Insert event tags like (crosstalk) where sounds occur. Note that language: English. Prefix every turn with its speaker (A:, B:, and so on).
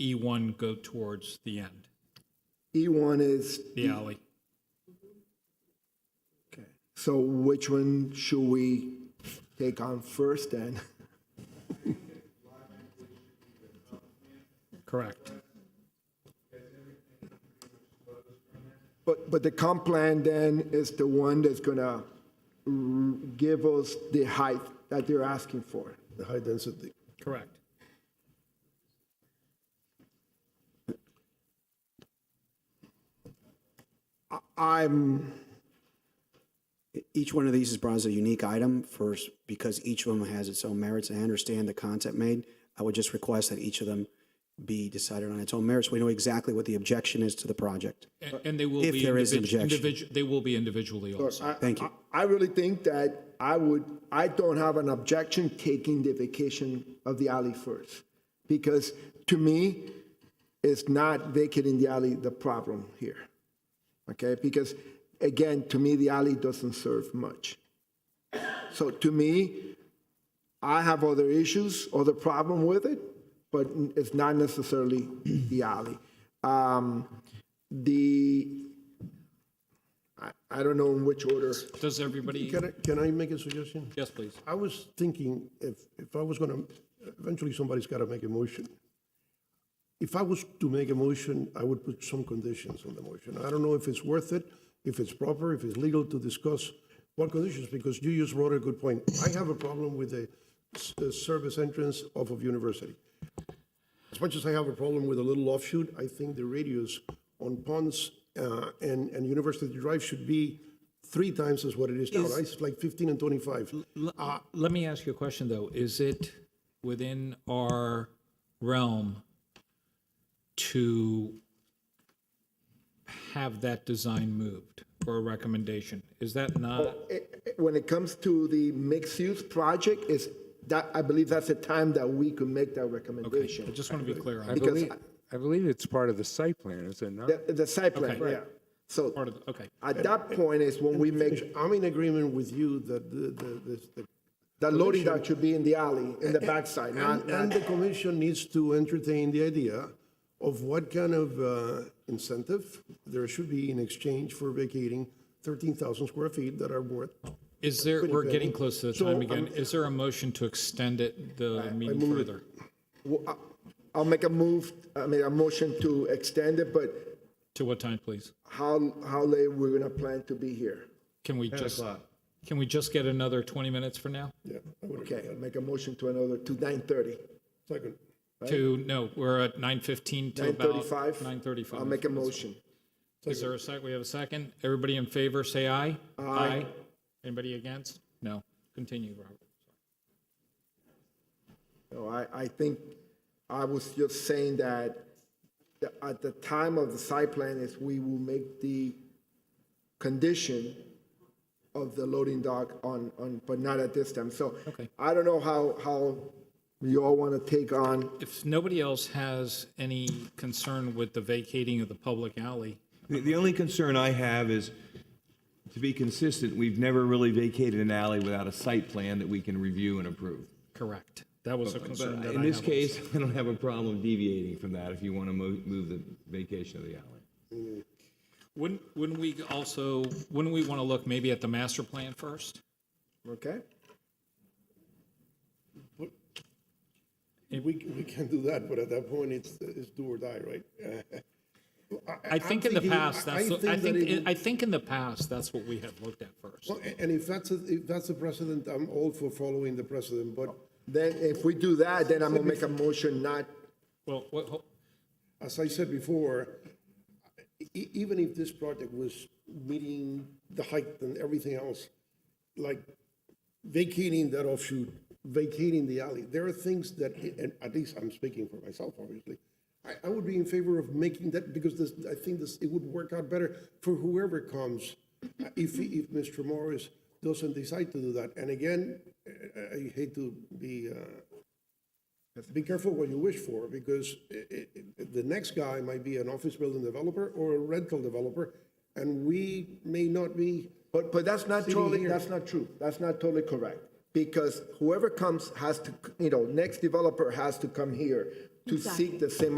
A: E1 E go towards the end,
B: E1 E is,
A: the alley.
B: okay. So which one should we take on first then? (laughs)
A: Correct.
B: But, but the comp plan then is the one that's gonna mm, give us the height that they're asking for.
C: the high density.
A: Correct.
B: I'm,
D: E, Each one of these is brought as a unique item first because each of them has its own merits. And I understand the concept made. I would just request that each of them be decided on its own merits. We know exactly what the objection is to the project.
A: And- And they will
D: If
A: be
D: there is an
A: individ-
D: objection.
A: individu- They will be individually also.
D: Thank you.
B: I really think that I would, I don't have an objection taking the vacation of the alley first. Because to me, it's not vacating the alley the problem here. Okay, because again, to me, the alley doesn't serve much. So to me, I have other issues, other problem with it, but it's not necessarily the alley. Um, The, I, I don't know in which order.
A: Does everybody,
C: Can I, can I make a suggestion?
A: yes, please.
C: I was thinking if, if I was gonna, eventually somebody's gotta make a motion. If I was to make a motion, I would put some conditions on the motion. I don't know if it's worth it, if it's proper, if it's legal to discuss what conditions, because you just brought a good point. I have a problem with the s- the service entrance off of University. As much as I have a problem with a little offshoot, I think the radius on Ponds uh, and, and University Drive should be three times as what it is now, right? It's like 15 and 25.
A: uh, Let me ask you a question, though. Is it within our realm to have that design moved for a recommendation? Is that not,
D: Oh.
B: When it comes to the mixed-use project, is that, I believe that's the time that we could make that
A: I
B: recommendation.
A: just want to be clear.
E: I
A: on
E: believe, I believe it's part of the site plan, is it not?
B: The, the site plan,
A: Okay.
B: yeah. So
A: part of the- Okay,
B: at that point is when we make,
C: I'm in agreement with you that the, the- the- the,
B: the loading dock should be in the alley, in the backside, not,
C: and, uh, and
B: not,
C: the commission needs to entertain the idea of what kind of uh, incentive there should be in exchange for vacating 13,000 square feet that are worth.
A: is there, we're
C: been.
A: getting close to the
C: So,
A: time again.
C: um,
A: Is there a motion to extend it, the meeting further?
B: Well, I- uh, I'll make a move, I mean, a motion to extend it, but
A: To what time, please?
B: how, how late we're gonna plan to be here?
A: Can we just, can we just get another 20 minutes for now?
C: Yeah, I would agree.
B: Okay, I'll make a motion to another, to nine thirty.
C: Second.
A: To, no, we're at 9:15 to about
B: 9:35?
A: 9:35.
B: I'll make a motion.
A: Is there a sec, we have a second? Everybody in favor, say aye. Aye. Anybody against? No. Continue, Robert.
B: No, I, I think, I was just saying that the- at the time of the site plan is we will make the condition of the loading dock on, on, but not at this time, so.
A: Okay.
B: I don't know how, how you all want to take on,
A: If nobody else has any concern with the vacating of the public alley,
F: The, the only concern I have is, to be consistent, we've never really vacated an alley without a site plan that we can review and approve.
A: correct. That was a concern
F: But
A: that I
F: in this
A: have.
F: case, (laughs) I don't have a problem deviating from that if you want to move, move the vacation of the alley.
A: Wouldn't, wouldn't we also, wouldn't we want to look maybe at the master plan first?
B: okay?
C: We, we can do that, but at that point, it's, it's do or die, right?
A: I think in the
C: thinking-
A: past,
C: I-
A: that's,
C: I
A: what- I
C: think that it
A: think,
C: would-
A: I think in the past, that's what we had looked at first.
C: Well, a- And if that's, a- if that's the precedent, I'm all for following the precedent, but
B: Then if we do that, then I'm gonna make a motion not,
A: Well, what, ho-
C: as I said before, e- even if this project was meeting the height and everything else, like vacating that offshoot, vacating the alley, there are things that, and at least I'm speaking for myself, obviously, I, I would be in favor of making that, because this, I think this, it would work out better for whoever comes, uh, if, if Mr. Morris doesn't decide to do that. And again, I- I I hate to be uh, be careful what you wish for, because i- i- i- the next guy might be an office building developer or a rental developer, and we may not be,
B: but, but that's not totally,
C: here.
B: that's not true. That's not totally correct. Because whoever comes has to, you know, next developer has to come here to seek the same